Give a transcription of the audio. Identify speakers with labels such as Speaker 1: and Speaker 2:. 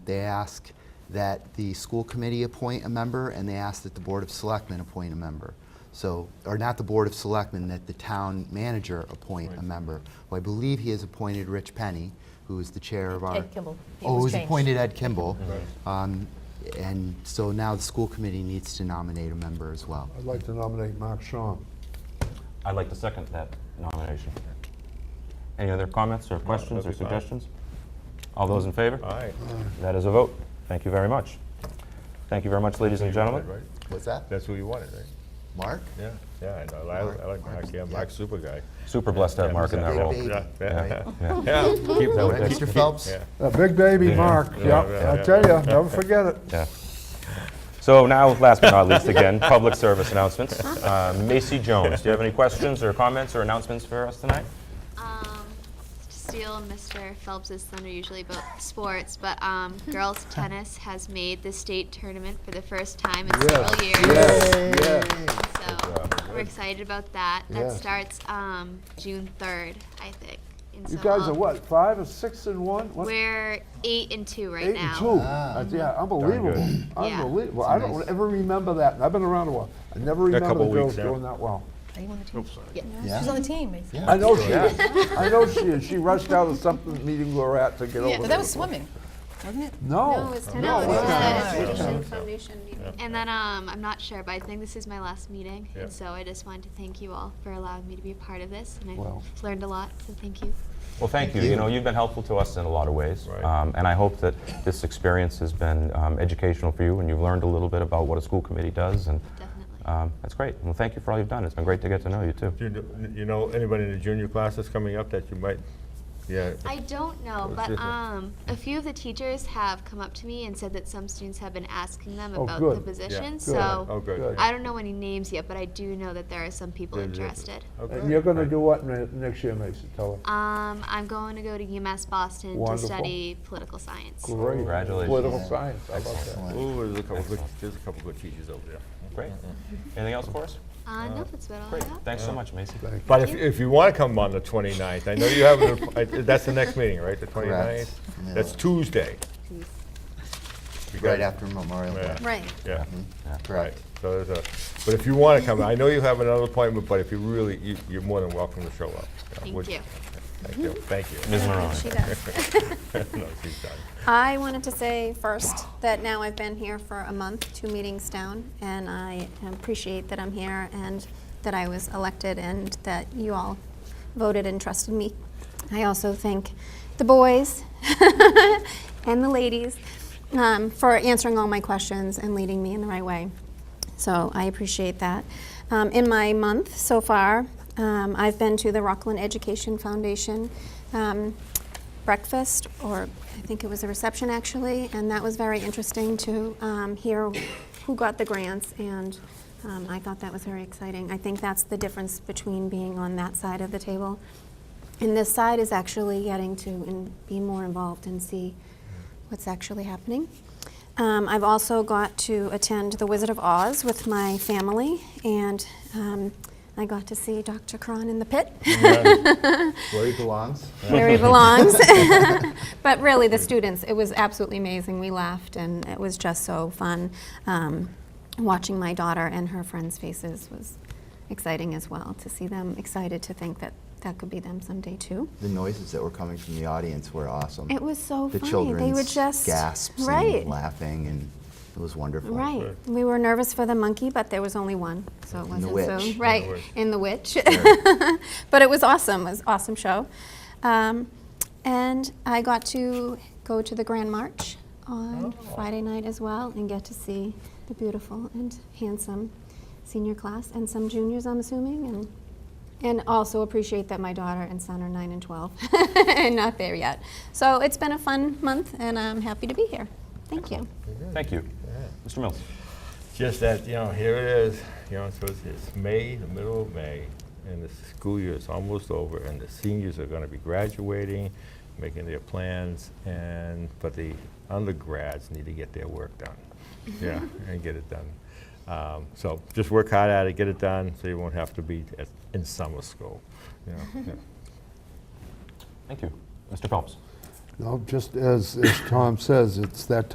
Speaker 1: They ask that the school committee appoint a member, and they ask that the Board of Selectmen appoint a member. So, or not the Board of Selectmen, that the town manager appoint a member. Well, I believe he has appointed Rich Penny, who is the chair of our.
Speaker 2: Ed Kimball. It
Speaker 1: Oh,
Speaker 2: was
Speaker 1: who's
Speaker 2: changed.
Speaker 1: appointed Ed Kimball. Um, And so now the school committee needs to nominate a member as well.
Speaker 3: I'd like to nominate Mark Shawn.
Speaker 4: I'd like to second that nomination. Any other comments or questions or
Speaker 5: that'd be fine.
Speaker 4: suggestions? All those in favor?
Speaker 5: All right.
Speaker 4: That is a vote. Thank you very much. Thank you very much, ladies and gentlemen.
Speaker 5: Right?
Speaker 1: What's that?
Speaker 5: That's who you wanted, right?
Speaker 1: Mark?
Speaker 5: Yeah, yeah, I know. I, I like Mark, yeah, Mark's super guy.
Speaker 4: Super blessed to have
Speaker 5: Yeah,
Speaker 4: Mark in that
Speaker 5: he's
Speaker 4: role.
Speaker 1: Big
Speaker 5: Yeah, yeah,
Speaker 1: baby,
Speaker 4: Yeah.
Speaker 5: yeah. Keep that
Speaker 1: Right,
Speaker 5: with
Speaker 1: Oh, Mr. Phelps?
Speaker 5: Yeah.
Speaker 3: A big baby,
Speaker 4: Yeah.
Speaker 3: Mark,
Speaker 5: Yeah,
Speaker 3: yep,
Speaker 5: yeah,
Speaker 3: I
Speaker 5: yeah.
Speaker 3: tell you, never forget it.
Speaker 4: Yeah. So now, last but not least, again, public service announcements. Uh, Macy Jones, do you have any questions or comments or announcements for us tonight?
Speaker 6: Um, steal Mr. Phelps's thunder usually about sports, but um, girls tennis has made the state tournament for the first time in several years. So we're excited about that. That
Speaker 3: Yeah.
Speaker 6: starts um, June third, I think. And
Speaker 3: You
Speaker 6: so
Speaker 3: guys are
Speaker 6: I'll-
Speaker 3: what, five or six and one? What,
Speaker 6: We're eight and two right
Speaker 3: Eight
Speaker 6: now.
Speaker 3: and two? Uh, Yeah, unbelievable, unbelievable. I don't
Speaker 1: Nice.
Speaker 3: ever remember that, and I've been around a while. I never remember
Speaker 5: couple
Speaker 3: the girls
Speaker 5: weeks, yeah.
Speaker 3: doing that well.
Speaker 2: Are you on the team?
Speaker 1: Yeah.
Speaker 2: Yeah, she's on the team, Macy.
Speaker 1: Yeah.
Speaker 3: I know she is, I know she is. She rushed out of something meeting we were at to get
Speaker 6: Yeah.
Speaker 3: over
Speaker 6: But
Speaker 2: But that
Speaker 3: there.
Speaker 2: was swimming, wasn't it?
Speaker 3: No.
Speaker 6: No,
Speaker 3: it
Speaker 6: it's
Speaker 3: wasn't.
Speaker 6: tennis.
Speaker 2: Yeah.
Speaker 6: And then um, I'm not sure, but I think this is my last meeting,
Speaker 5: Yeah.
Speaker 6: and so I just wanted to thank you all for allowing me to be a part of this, and I
Speaker 3: Wow.
Speaker 6: have learned a lot. So thank you.
Speaker 4: Well, thank you. You know, you've been helpful to us in a lot of ways.
Speaker 5: Right.
Speaker 4: Um, And I hope that this experience has been um, educational for you and you've learned a little bit about what a school committee does. And
Speaker 6: Definitely.
Speaker 4: um, that's great. Well, thank you for all you've done. It's been great to get to know you, too.
Speaker 5: You kn- you know, anybody in the junior class that's coming up that you might, yeah,
Speaker 6: I don't know, but
Speaker 5: different.
Speaker 6: um, a few of the teachers have come up to me and said that some students have been asking them
Speaker 3: Oh,
Speaker 6: about
Speaker 3: good.
Speaker 6: the
Speaker 3: Yeah.
Speaker 6: position.
Speaker 3: Good.
Speaker 6: So
Speaker 5: oh, good.
Speaker 3: Good.
Speaker 6: I don't know any names yet, but I do know that there are some people
Speaker 5: Yeah, yeah.
Speaker 6: interested.
Speaker 3: And you're gonna do what ne- next year, Mason, tell her?
Speaker 6: Um, I'm going to go to UMass Boston
Speaker 3: Wonderful.
Speaker 6: to study political science.
Speaker 3: Great.
Speaker 4: Congratulations.
Speaker 3: Political science, how about that?
Speaker 5: Ooh, there's a couple, good- there's a couple good teachers over there.
Speaker 4: Great. Anything else for us?
Speaker 6: Uh, no, that's about all
Speaker 4: Great.
Speaker 6: I have.
Speaker 4: Thanks so much, Macy.
Speaker 5: But if, if you want to come on the 29th, I know you have, an app- I- that's the next meeting, right, the 29th?
Speaker 1: Yeah.
Speaker 5: That's Tuesday. You
Speaker 1: Right
Speaker 5: guys-
Speaker 1: after Mm-hmm. Memorial
Speaker 5: Yeah.
Speaker 1: Day,
Speaker 2: Right.
Speaker 5: Yeah. Right,
Speaker 1: correct?
Speaker 5: so there's a, but if you want to come, I know you have another appointment, but if you really, you- you're more than welcome to show up.
Speaker 6: Thank
Speaker 5: Would-
Speaker 6: you. Mm-hmm.
Speaker 5: Thank you, thank you.
Speaker 4: Ms. Marone.
Speaker 5: No, she's done.
Speaker 7: I wanted to say first that now I've been here for a month, two meetings down, and I appreciate that I'm here and that I was elected and that you all voted and trusted me. I also thank the boys and the ladies um, for answering all my questions and leading me in the right way. So I appreciate that. Um, in my month so far, um, I've been to the Rockland Education Foundation um, breakfast, or I think it was a reception actually, and that was very interesting to um, hear who got the grants, and um, I thought that was very exciting. I think that's the difference between being on that side of the table. And this side is actually getting to and be more involved and see what's actually happening. Um, I've also got to attend The Wizard of Oz with my family, and um, I got to see Dr. Cron in the pit
Speaker 1: Where he belongs?
Speaker 7: where he belongs. but really, the students, it was absolutely amazing. We laughed, and it was just so fun. Um, watching my daughter and her friends' faces was exciting as well to see them excited to think that that could be them someday too.
Speaker 1: The noises that were coming from the audience were awesome.
Speaker 7: It was so
Speaker 1: The
Speaker 7: funny. They were
Speaker 1: children's
Speaker 7: just
Speaker 1: gasps
Speaker 7: right.
Speaker 1: and laughing, and it was wonderful.
Speaker 7: Right. We were nervous for the monkey, but there was only one, so it
Speaker 1: And the
Speaker 7: wasn't
Speaker 1: witch.
Speaker 7: so right
Speaker 5: witch.
Speaker 7: in the witch. but it was awesome. It was an awesome show, um, and I got to go to the Grand March on Friday night as well, and get to see the beautiful and handsome senior class and some juniors, I'm assuming, and and also appreciate that my daughter and son are nine and twelve and not there yet. So it's been a fun month, and I'm happy to be here. Thank you.
Speaker 4: Thank you. Mr. Mills.
Speaker 5: Just that, you know, here it is, you know, so it's, it's May, the middle of May, and the school year is almost over, and the seniors are gonna be graduating, making their plans, and, but the undergrads need to get their work done.
Speaker 6: Mm-hmm.
Speaker 5: Yeah, and get it done. Um, so just work hard at it, get it done, so you won't have to be at, in summer school, you know. yeah.
Speaker 4: Thank you. Mr. Phelps.
Speaker 3: No, just as, as Tom says, it's that